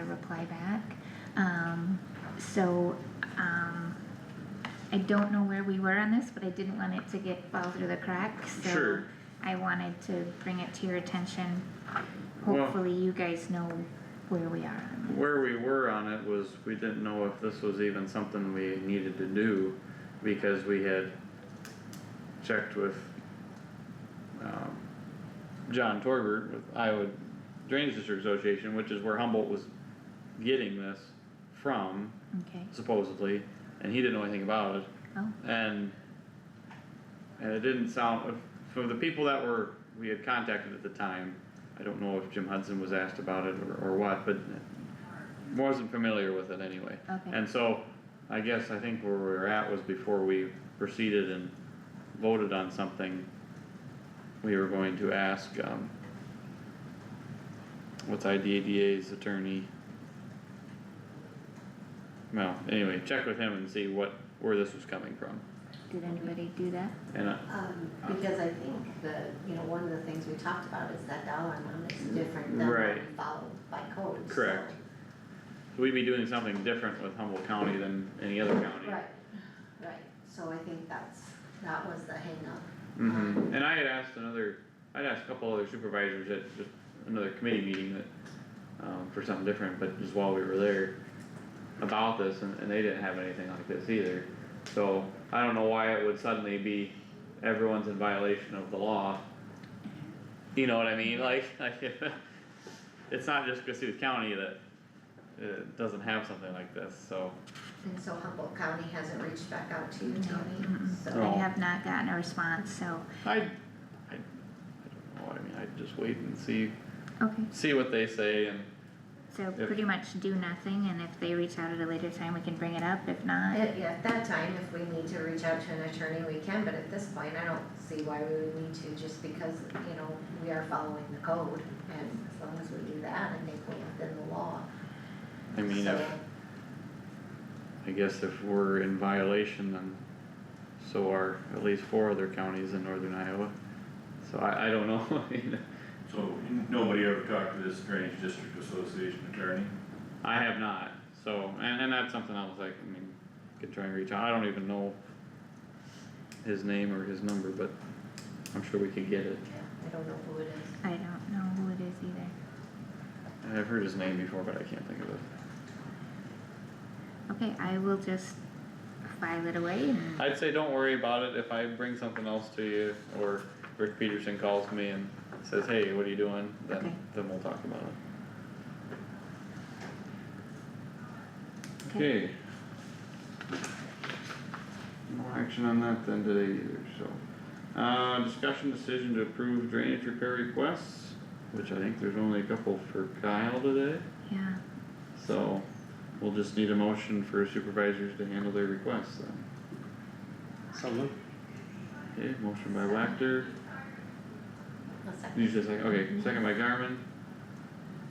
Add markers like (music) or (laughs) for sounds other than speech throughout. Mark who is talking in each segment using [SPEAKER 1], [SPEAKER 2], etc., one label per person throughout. [SPEAKER 1] apply back. Um, so, um, I don't know where we were on this, but I didn't want it to get fall through the cracks, so.
[SPEAKER 2] Sure.
[SPEAKER 1] I wanted to bring it to your attention.
[SPEAKER 2] Well-
[SPEAKER 1] Hopefully you guys know where we are on this.
[SPEAKER 2] Where we were on it was, we didn't know if this was even something we needed to do, because we had checked with, um, John Torbert with Iowa Drainage District Association, which is where Humboldt was getting this from
[SPEAKER 1] Okay,
[SPEAKER 2] supposedly, and he didn't know anything about it,
[SPEAKER 1] oh,
[SPEAKER 2] and, and it didn't sound, for the people that were, we had contacted at the time, I don't know if Jim Hudson was asked about it or, or what, but wasn't familiar with it anyway.
[SPEAKER 1] Okay.
[SPEAKER 2] And so, I guess, I think where we were at was before we proceeded and voted on something, we were going to ask, um, what's IDADA's attorney? Well, anyway, check with him and see what, where this was coming from,
[SPEAKER 1] did anybody do that?
[SPEAKER 2] and I,
[SPEAKER 3] Um, because I think the, you know, one of the things we talked about is that dollar amount is different than what
[SPEAKER 2] Right.
[SPEAKER 3] we followed by code, so.
[SPEAKER 2] Correct. we'd be doing something different with Humboldt County than any other county.
[SPEAKER 3] Right, right, so I think that's, that was the hangup.
[SPEAKER 2] hmm and I had asked another, I'd asked a couple other supervisors at just another committee meeting that, um, for something different, but just while we were there. About this, and, and they didn't have anything like this either, so I don't know why it would suddenly be everyone's in violation of the law. You know what I mean, like, (laughs) like, it's not just Cassuth County that, uh, doesn't have something like this, so.
[SPEAKER 3] And so Humboldt County hasn't reached back out to you,
[SPEAKER 1] No,
[SPEAKER 3] Tammy,
[SPEAKER 1] mm-mm.
[SPEAKER 2] No.
[SPEAKER 3] so.
[SPEAKER 1] I have not gotten a response, so,
[SPEAKER 2] I, I, I don't know, I mean, I'd just wait and see,
[SPEAKER 1] okay,
[SPEAKER 2] see what they say and
[SPEAKER 1] so
[SPEAKER 2] Yep.
[SPEAKER 1] pretty much do nothing, and if they reach out at a later time, we can bring it up, if
[SPEAKER 2] Oh.
[SPEAKER 1] not,
[SPEAKER 3] At, yeah, at that time, if we need to reach out to an attorney, we can, but at this point, I don't see why we would need to, just because, you know, we are following the code. And as long as we do that, I think we're within the law,
[SPEAKER 2] I mean, if,
[SPEAKER 3] so,
[SPEAKER 2] I guess if we're in violation, then so are at least four other counties in northern Iowa. So I, I don't know, (laughs) I mean,
[SPEAKER 4] So nobody ever talked to this drainage district association attorney?
[SPEAKER 2] I have not, so, and, and that's something else, like, I mean, could try and reach out, I don't even know his name or his number, but I'm sure we could get it.
[SPEAKER 3] yeah, I don't know who it is.
[SPEAKER 1] I don't know who it is either.
[SPEAKER 2] And I've heard his name before, but I can't think of it.
[SPEAKER 1] Okay, I will just file it away and,
[SPEAKER 2] I'd say don't worry about it if I bring something else to you, or Rick Peterson calls me and says, hey, what are you doing?
[SPEAKER 1] Okay.
[SPEAKER 2] Then, then we'll talk about it.
[SPEAKER 1] okay,
[SPEAKER 2] Okay. No action on that then today either, so. Uh, discussion decision to approve drainage repair requests, which I think there's only a couple for Kyle today,
[SPEAKER 1] yeah,
[SPEAKER 2] so we'll just need a motion for supervisors to handle their requests then. Okay, motion by Wactor,
[SPEAKER 3] A second.
[SPEAKER 2] you just like, okay, second by Garmin.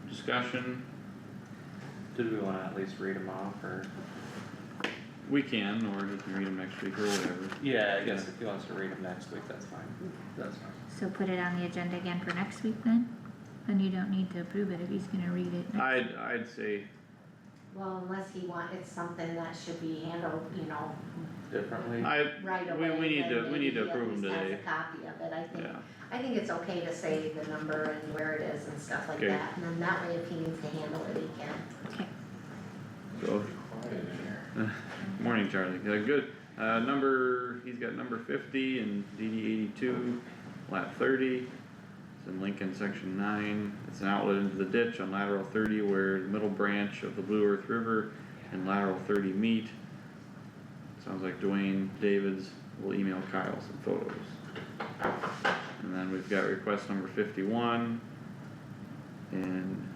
[SPEAKER 2] Discussion,
[SPEAKER 5] Did we wanna at least read them off or?
[SPEAKER 2] we can, or you can read them next week or whatever.
[SPEAKER 5] Yeah, I
[SPEAKER 2] guess
[SPEAKER 5] guess Hmm. if he wants to read them next week, that's fine. That's fine.
[SPEAKER 1] so put it on the agenda again for next week then? Then you don't need to approve it if he's gonna read it. next-
[SPEAKER 2] I'd, I'd say
[SPEAKER 3] Well, unless he want, it's something that should be handled, you know,
[SPEAKER 5] Differently?
[SPEAKER 2] I,
[SPEAKER 3] right
[SPEAKER 2] we,
[SPEAKER 3] away.
[SPEAKER 2] we need
[SPEAKER 3] then
[SPEAKER 2] to, we
[SPEAKER 3] maybe
[SPEAKER 2] need to
[SPEAKER 3] he at
[SPEAKER 2] approve them
[SPEAKER 3] least
[SPEAKER 2] today,
[SPEAKER 3] Has a copy of it, I think,
[SPEAKER 2] yeah,
[SPEAKER 3] I think it's okay to say the number and where it is and stuff like
[SPEAKER 2] Okay.
[SPEAKER 3] that, and then that way if he needs to handle it, he can.
[SPEAKER 1] Okay,
[SPEAKER 2] so, morning Charlie, Uh, good. Uh, number, he's got number fifty and DD eighty-two, lap thirty, it's in Lincoln, section nine, it's an outlet into the ditch on lateral thirty where the middle branch of the Blue Earth River and lateral thirty meet. Sounds like Dwayne Davids will email Kyle some photos. And then we've got request number fifty-one. And.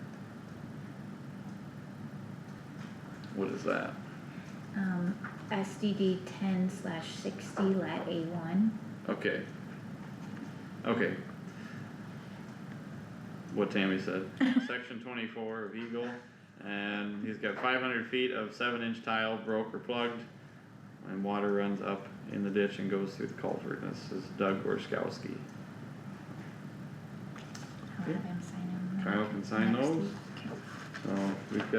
[SPEAKER 2] What is that?
[SPEAKER 1] um, SDD ten slash sixty lat A one.
[SPEAKER 2] Okay. Okay. What Tammy said, section twenty-four of Eagle, and he's got five hundred feet of seven-inch tile broke or plugged. And water runs up in the ditch and goes through the culvert, this is Doug Gorskowski.
[SPEAKER 1] I'll have him sign them.
[SPEAKER 2] Kyle can sign
[SPEAKER 1] next
[SPEAKER 2] those.
[SPEAKER 1] week. Okay.
[SPEAKER 2] So we've got